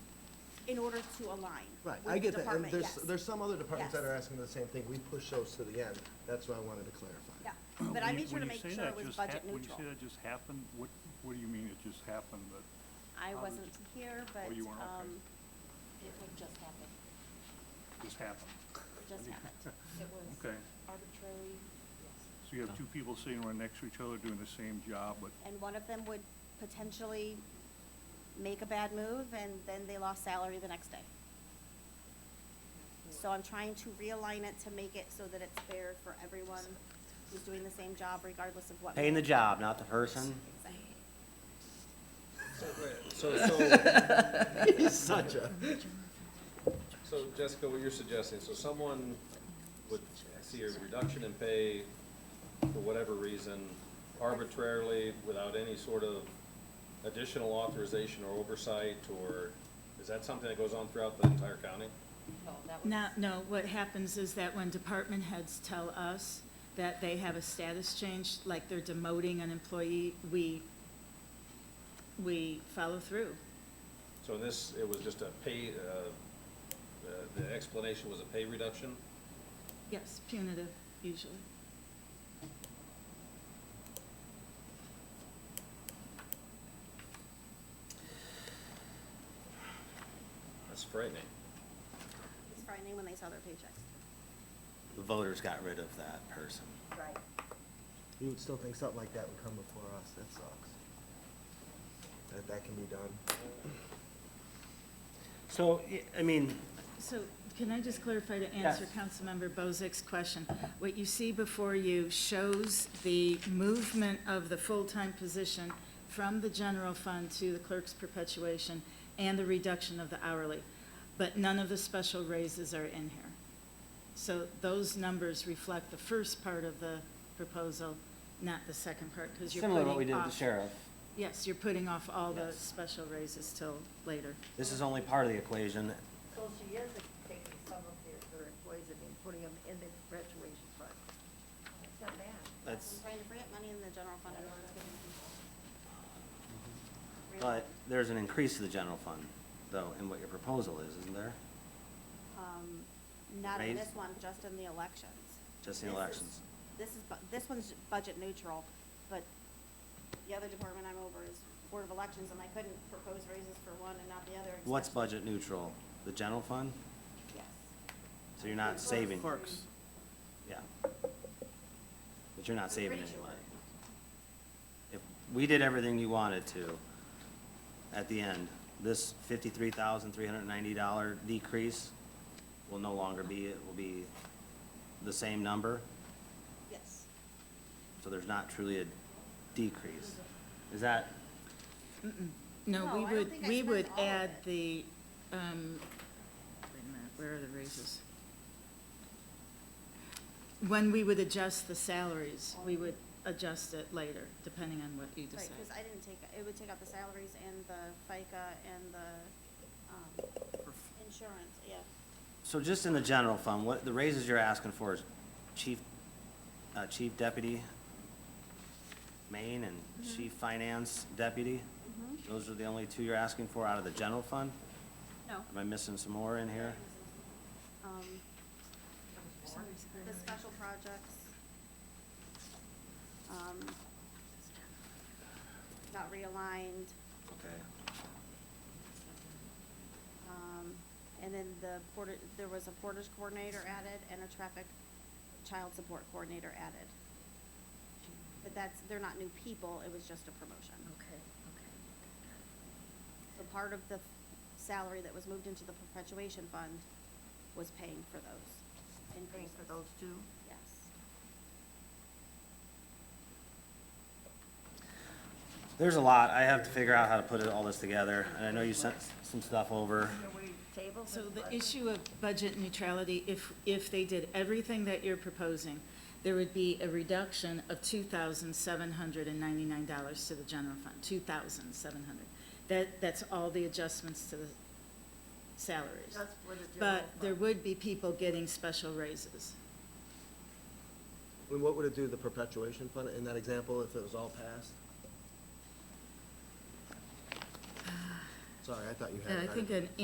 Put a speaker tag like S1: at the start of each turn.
S1: in order to align.
S2: Right,
S1: with the
S2: I get that, and
S1: department,
S2: there's,
S1: yes.
S2: there's some other departments that
S1: Yes.
S2: are asking the same thing, we push those to the end, that's what I wanted to clarify.
S1: Yeah, but I
S3: When you-
S1: made sure to
S3: when you
S1: make
S3: say
S1: sure
S3: that
S1: it was
S3: just hap-
S1: budget
S3: When you
S1: neutral.
S3: say that just happened, what, what do you mean it just happened, that,
S1: I
S3: how did-
S1: wasn't here, but,
S3: Oh, you weren't, okay.
S1: um,
S4: It would just happen.
S3: just happened?
S4: It just happened. It was
S3: Okay,
S4: arbitrary, yes.
S3: so you have two people sitting right next to each other doing the same job, but
S1: and one of them would potentially make a bad move, and then they lost salary the next day. So I'm trying to realign it to make it so that it's fair for everyone who's doing the same job regardless of what.
S5: Paying the
S1: merit.
S5: job, not the person.
S1: Exactly.
S6: So, so,
S2: He's such a,
S6: so Jessica, what you're suggesting, so someone would see a reduction in pay for whatever reason arbitrarily, without any sort of additional authorization or oversight, or is that something that goes on throughout the entire county?
S4: No, that was,
S7: No, no, what happens is that when department heads tell us that they have a status change, like they're demoting an employee, we, we follow through.
S6: So in this, it was just a pay, uh, uh, the explanation was a pay reduction?
S7: Yes, punitive usually.
S6: That's frightening.
S1: It's frightening when they saw their paychecks.
S5: The voters got rid of that person.
S1: Right.
S2: you would still think something like that would come before us, that sucks. That, that can be done.
S5: So, y- I mean,
S7: So can I just clarify to answer
S5: Yes.
S7: Councilmember Bozick's question? What you see before you shows the movement of the full-time position from the general fund to the clerk's perpetuation and the reduction of the hourly, but none of the special raises are in here. So those numbers reflect the first part of the proposal, not the second part, because you're putting
S5: similar to what we did with the
S7: off-
S5: sheriff,
S7: Yes, you're putting off all the
S5: Yes.
S7: special raises till later.
S5: this is only part of the equation.
S8: So she is taking some of their, her employees and then putting them in the graduation fund. That's not bad.
S5: That's,
S1: Trying to free up money in the general fund. in order to give them-
S5: Uh-huh. but there's an increase to the general fund, though, in what your proposal is, isn't there?
S1: Um, Not in
S5: Raise-
S1: this one, just in the elections.
S5: Just in
S1: This is-
S5: elections.
S1: This is, bu- this one's budget neutral, but the other department I'm over is Board of Elections, and I couldn't propose raises for one and not the other.
S5: What's
S1: especially-
S5: budget neutral? The general fund?
S1: Yes.
S5: So you're not saving.
S1: Clerks.
S5: Yeah. But you're not saving
S1: Pretty
S5: any
S1: sure.
S5: money. If we did everything you wanted to, at the end, this fifty-three thousand, three hundred and ninety dollar decrease will no longer be, it will be the same number,
S1: Yes.
S5: so there's not truly a decrease. Is that,
S1: No,
S7: No, we
S1: I don't
S7: would,
S1: think I
S7: we
S1: spent
S7: would
S1: all of
S7: add
S1: it.
S7: the, um, wait a minute, where are the raises? When we would adjust the salaries, we would adjust it later, depending on what you
S1: Right,
S7: decide.
S1: because I didn't take, it would take out the salaries and the FICA and the um, insurance, yeah.
S5: so just in the general fund, what, the raises you're asking for is chief, uh, chief deputy main and chief finance deputy? Those are the only two you're asking for out of the general fund?
S1: No.
S5: Am I missing some more in here?
S1: Um, The special projects. um, Not realigned,
S5: Okay.
S1: um, and then the porter, there was a portage coordinator added and a traffic child support coordinator added. But that's, they're not new people, it was just a promotion.
S8: Okay, okay.
S1: So part of the salary that was moved into the perpetuation fund was paying for those
S8: And paying
S1: increases.
S8: for those two?
S1: Yes.
S5: There's a lot. I have to figure out how to put it, all this together, and I know you sent some stuff over.
S8: Are we tabled?
S7: So
S8: this
S7: the
S8: budget?
S7: issue of budget neutrality, if, if they did everything that you're proposing, there would be a reduction of two thousand seven hundred and ninety-nine dollars to the general fund, two thousand seven hundred. That, that's all the adjustments to the salaries.
S8: That's for the general
S7: But there
S8: fund.
S7: would be people getting special raises.
S2: And what would it do, to the perpetuation fund, in that example, if it was all passed? Sorry, I thought you had. it
S7: I
S2: right.
S1: Uh,
S7: think an